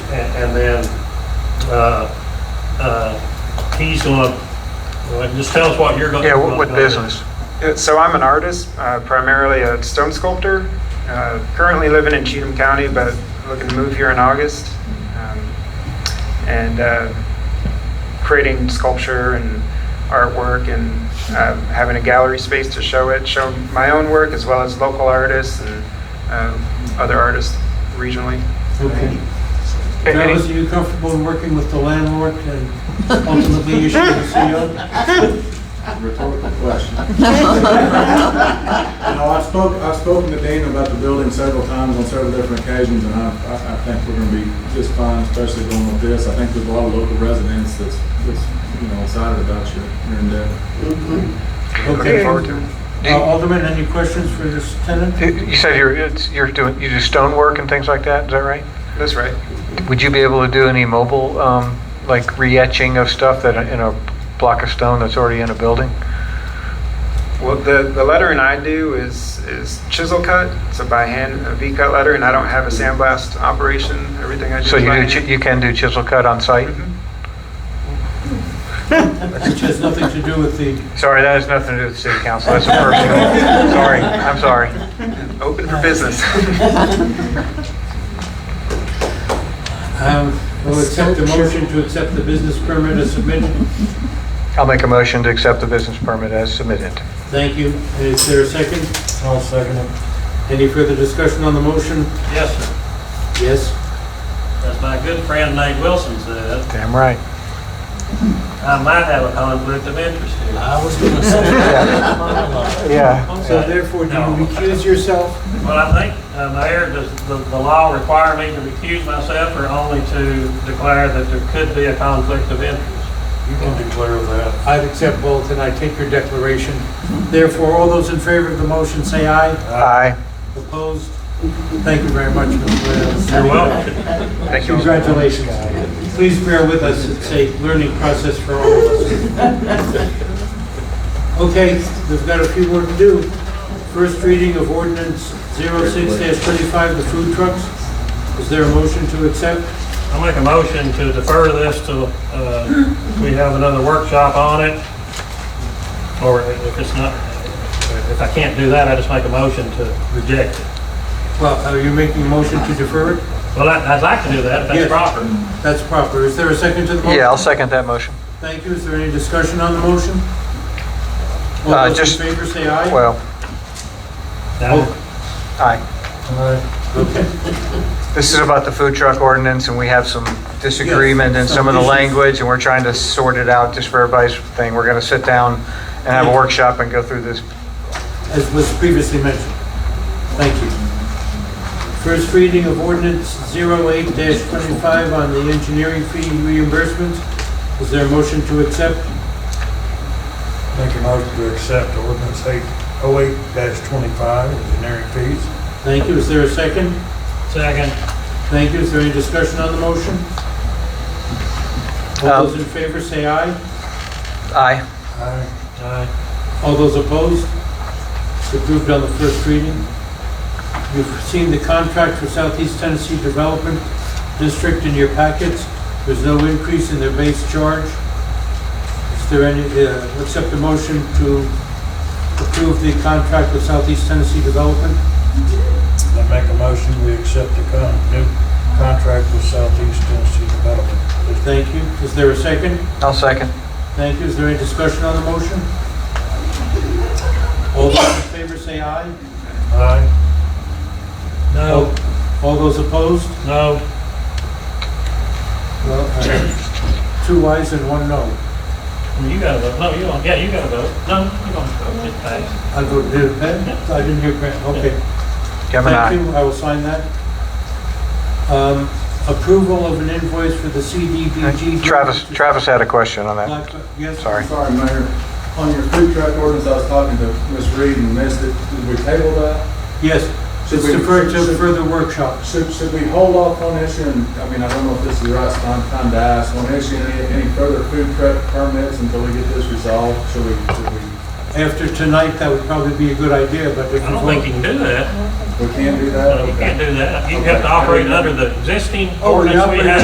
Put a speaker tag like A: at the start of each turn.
A: And and then, uh, uh, he's gonna, well, just tell us what you're gonna.
B: Yeah, what, what
A: gonna do.
B: business?
C: Uh, So I'm an artist, uh, primarily a stone sculptor. Uh, currently living in Cheatham County, but looking to move here in August. Um, and uh, creating sculpture and artwork and uh, having a gallery space to show it, show my own work as well as local artists and uh, other artists regionally.
D: Okay.
B: A- any-
D: Travis, are you comfortable in working with the landlord and ultimately issuing the E CO?
E: Rhetorical question.
F: Well,
E: No, I've spoke, I've spoken to Dean about the building several times on several different occasions, and I, I, I think we're gonna be just fine, especially going with this. I think there's a lot of local residents that's, that's, you uh, know, excited about your, your endeavor.
B: Okay.
C: Looking forward to it.
D: Uh, Alderman, any questions for this tenant?
B: You you said you're, it's- you're doing, you do stonework and things like that, is that right?
C: That's right.
B: Would you be able to do any mobile, um, like re-etching of stuff that, in a block of stone that's already in a building?
C: Well, the, the lettering I do is, is chisel cut, so by hand, a V cut letter, and I don't have a sandblast operation. Everything I do
B: So
C: is
B: you
C: by
B: do,
C: hand.
B: chi- you can do chisel cut on site?
C: Mhm.
D: Which has nothing to do with the,
B: Sorry, that has nothing to do with city council, that's a personal, sorry, I'm sorry.
C: Open for business.
D: um, we'll accept the motion to accept the business permit as submitted.
B: I'll make a motion to accept the business permit as submitted.
D: Thank you. Is there a second?
F: I'll second it.
D: Any further discussion on the motion?
A: Yes, sir.
D: Yes.
A: As my good friend Nate Wilson said,
B: Damn right.
A: I might have a conflict of interest here.
D: I was going to say.
B: Yeah.
D: So therefore, do you recuse yourself?
A: But I think, uh, Mayor, does the, the law require me to recuse myself or only to declare that there could be a conflict of interest?
D: You can declare that. I accept both, and I take your declaration. Therefore, all those in favor of the motion, say aye.
B: Aye.
D: Opposed? Thank you very much, Mr. Wales.
A: You're welcome.
C: Thank you.
D: Congratulations. Please bear with us, it's a learning process for all of us. Okay, we've got a few more to do. First reading of ordinance 06-25, the food trucks. Is there a motion to accept?
A: I'll make a motion to defer this till, uh, we have another workshop on it. Or if it's not, if I can't do that, I just make a motion to reject it.
D: Well, are you making a motion to defer it?
A: Well, I- I'd like to do that if that's
D: Yes.
A: proper.
D: That's proper. Is there a second to the motion?
B: Yeah, I'll second that motion.
D: Thank you. Is there any discussion on the motion?
B: Uh,
D: All those
B: just-
D: in favor, say aye.
B: Well,
A: Now,
D: Oh.
B: aye.
D: Okay.
B: This is about the food truck ordinance, and we have some disagreement in some of the
D: Yes, some issues.
B: language, and we're trying to sort it out just for everybody's thing. We're gonna sit down and have a workshop and go through this.
D: as was previously mentioned. Thank you. First reading of ordinance 08-25 on the engineering fee reimbursements. Is there a motion to accept?
G: Make a motion to accept ordinance eight oh eight twenty-five, engineering fees.
D: Thank you. Is there a second?
A: second,
D: Thank you. Is there any discussion on the motion? All
B: Um,
D: those in favor say aye.
B: Aye.
G: Aye.
A: uh,
D: All those opposed? It's approved on the first reading. You've seen the contract for Southeast Tennessee Development District in your packets. There's no increase in their base charge. Is there any, uh, accept a motion to approve the contract with Southeast Tennessee Development?
G: I make a motion we accept the con, new contract with Southeast Tennessee Development. District.
D: Thank you. Is there a second?
B: I'll second.
D: Thank you. Is there any discussion on the motion? All those in favor say aye.
G: Aye.
D: Oh.
A: no,
D: All those opposed?
A: no.
D: Well, uh, two ayes and one no.
A: You gotta vote. No, you don't. Yeah, you gotta vote. No, you don't vote. It passed.
D: I go, did it pass? I didn't hear Grant, okay.
B: Kevin,
D: Thank
B: aye.
D: you, I will sign that. Um, Approval of an invoice for the CDBG.
B: Travis, Travis had a question on that.
D: Yes,
B: Sorry.
E: Sorry, Mayor, on your food truck ordinance, I was talking to Ms. Reed and missed it, did we table that?
D: yes,
E: Should
D: it's
E: we-
D: deferred to
E: should-
D: further workshops.
E: Should, should we hold off on issuing, I mean, I don't know if this is the right time, time to ask, on issuing any, any further food truck permits until we get this resolved, should we, should we,
D: After tonight, that would probably be a good idea, but if
A: I don't think you
D: you vote.
A: can do that.
E: we can do that?
A: No, You
E: Okay.
A: can't do that. You have to operate under the existing
D: Oh, we
A: ordinance we
D: operate
A: have.